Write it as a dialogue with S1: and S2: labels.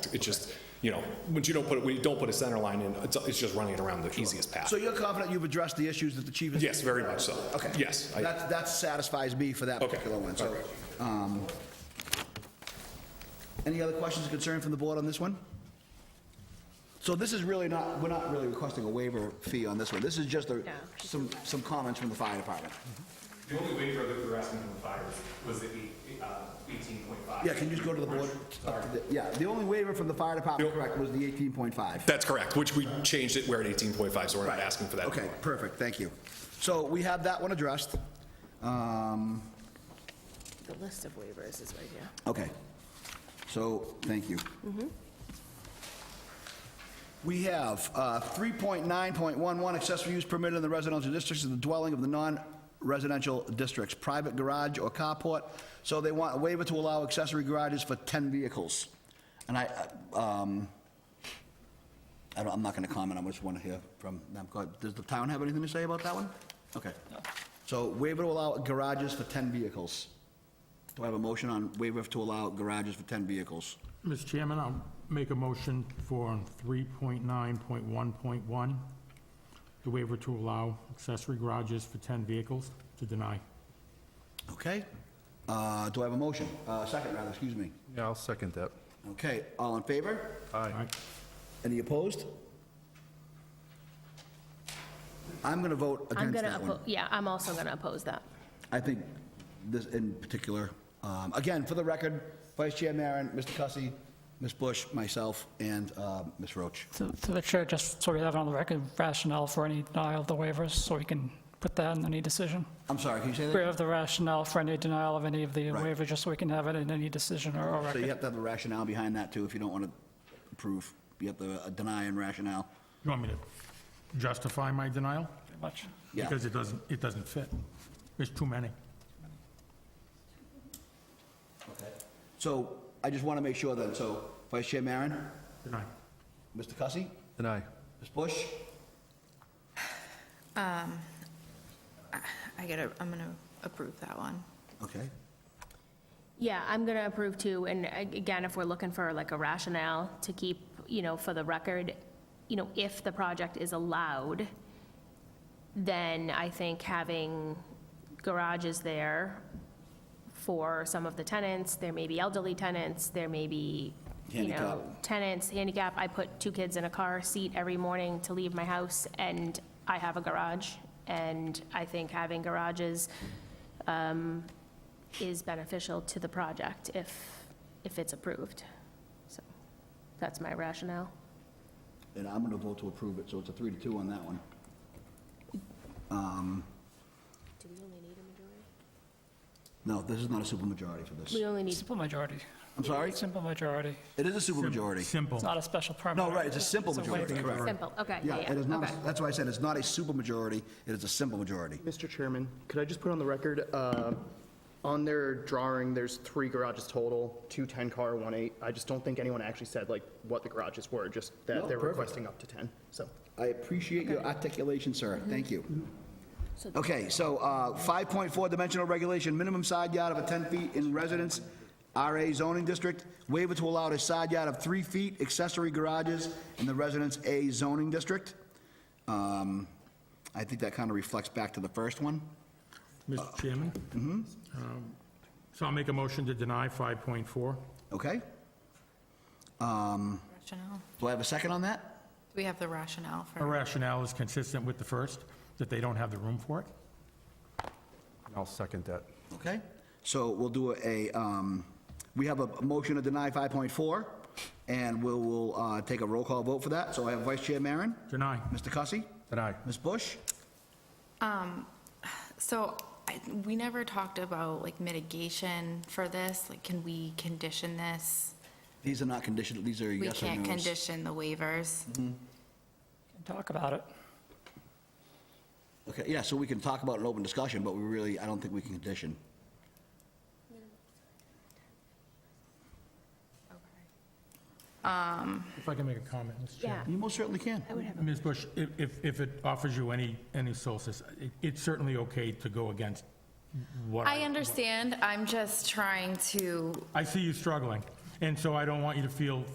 S1: It's just, you know, once you don't put, it- when you don't put a center line in, it's, it's just running it around the easiest path.
S2: So you're confident you've addressed the issues that the chief has?
S1: Yes, very much so.
S2: Okay.
S1: Yes. I-
S2: That, that satisfies me for that
S1: Okay.
S2: particular one, so.
S1: All right.
S2: um, Any other questions or concern from the board on this one? So this is really not, we're not really requesting a waiver fee on this one. This is just a, some, some comments from the fire department.
S3: The only waiver that we were asking from the fire was the eight- uh, 18.5.
S2: Yeah, can you just go to the board?
S3: Sorry.
S2: Yeah, Uh, the only waiver from the fire department, correct, was the 18.5.
S1: That's correct, which we changed it, we're at 18.5, so we're not
S2: Right.
S1: asking for that.
S2: Okay,
S1: anymore.
S2: perfect, thank you. So we have that one addressed. Um,
S4: The list of waivers is right here.
S2: Okay. So, thank you. Mm-hmm. We have uh, 3.9.11 accessory use permitted in the residential districts of the dwelling of the non-residential districts, private garage or carport. So they want a waiver to allow accessory garages for 10 vehicles. And I, uh, um, I don't, I'm not going to comment, I just want to hear from them. Go ahead. Does the town have anything to say about that one? Okay. So waiver to allow garages for 10 vehicles. Do I have a motion on waiver to allow garages for 10 vehicles?
S5: Mr. Chairman, I'll make a motion for 3.9.1.1, the waiver to allow accessory garages for 10 vehicles to deny.
S2: Okay. Uh, Do I have a motion? Uh, Second, rather, excuse me.
S6: Yeah, I'll second that.
S2: Okay, all in favor?
S5: Aye.
S2: Any opposed? I'm going to vote
S7: I'm
S2: against
S7: gonna,
S2: that one.
S7: oppo- yeah, I'm also gonna oppose that.
S2: I think this in particular, um, again, for the record, Vice Chair Maron, Mr. Cussy, Ms. Bush, myself, and uh, Ms. Roach.
S8: So Through the chair, just so we have it on the record, rationale for any denial of the waivers, so we can put that in any decision.
S2: I'm sorry, can you say
S8: We
S2: that?
S8: have the rationale for any denial of any of the
S2: Right.
S8: waivers, just so we can have it in any decision or or
S2: So you
S8: record.
S2: have to have a rationale behind that, too, if you don't want to approve. You have to uh, deny and rationale.
S5: You want me to justify my denial?
S8: Pretty much.
S2: Yeah.
S5: Because it doesn't, it doesn't fit. There's too many.
S2: So I just want to make sure then, so Vice Chair Maron,
S5: Deny.
S2: Mr. Cussy,
S6: And I.
S2: Ms. Bush,
S9: I gotta, I'm gonna approve that one.
S2: okay.
S7: Yeah, I'm gonna approve too, and a- again, if we're looking for like a rationale to keep, you know, for the record, you know, if the project is allowed, then I think having garages there for some of the tenants, there may be elderly tenants, there may be, you know,
S2: Handicap.
S7: tenants, handicap, I put two kids in a car seat every morning to leave my house, and I have a garage, and I think having garages um, is beneficial to the project if, if it's approved. So that's my rationale.
S2: And I'm going to vote to approve it, so it's a three to two on that one.
S7: Do we only need a majority?
S2: No, this is not a supermajority for this.
S7: We only need,
S8: Simple majority.
S2: I'm sorry?
S8: Simple majority.
S2: It is a supermajority.
S8: It's
S5: Simple.
S8: not a special permit.
S2: No, right, it's a simple
S8: It's a
S2: majority,
S8: waiver.
S2: correct.
S7: simple, okay,
S2: Yeah,
S7: yeah, yeah,
S2: it is not,
S7: okay.
S2: a- that's why I said it's not a supermajority, it is a simple majority.
S10: Mr. Chairman, could I just put on the record, uh, on their drawing, there's three garages total, two 10-car, one 8. I just don't think anyone actually said, like, what the garages were, just
S2: No,
S10: that they're
S2: perfect.
S10: requesting up to 10, so.
S2: I appreciate your articulation, sir. Thank you. Okay, so uh, 5.4 dimensional regulation, minimum side yard of a 10 feet in residence, RA zoning district, waiver to allow a side yard of 3 feet accessory garages in the residence A zoning district. Um, I think that kind of reflects back to the first one.
S5: Mr. Chairman? Mm-hmm. So I'll make a motion to deny 5.4.
S2: Okay?
S9: Rationale.
S2: Do I have a second on that?
S9: Do we have the rationale for?
S5: Our rationale is consistent with the first, that they don't have the room for it.
S6: I'll second that.
S2: Okay? So we'll do a, um, we have a motion to deny 5.4, and we'll, we'll uh, take a roll call vote for that. So I have Vice Chair Maron?
S5: Deny.
S2: Mr. Cussy?
S6: And I.
S2: Ms. Bush?
S9: So I, we never talked about like mitigation for this. Like, can we condition this?
S2: These are not conditional, these are
S9: We
S2: yes or
S9: can't
S2: no's.
S9: condition the waivers.
S8: Talk about it.
S2: Okay, yeah, so we can talk about an open discussion, but we really, I don't think we can condition.
S5: If I can make a comment, Mr. Chairman?
S7: yeah.
S2: You most certainly can.
S5: Ms. Bush, if- if, if it offers you any, any solace, it- it's certainly okay to go against what
S9: I
S5: I,
S9: understand. I'm just trying to
S5: I see you struggling, and so I don't want you to feel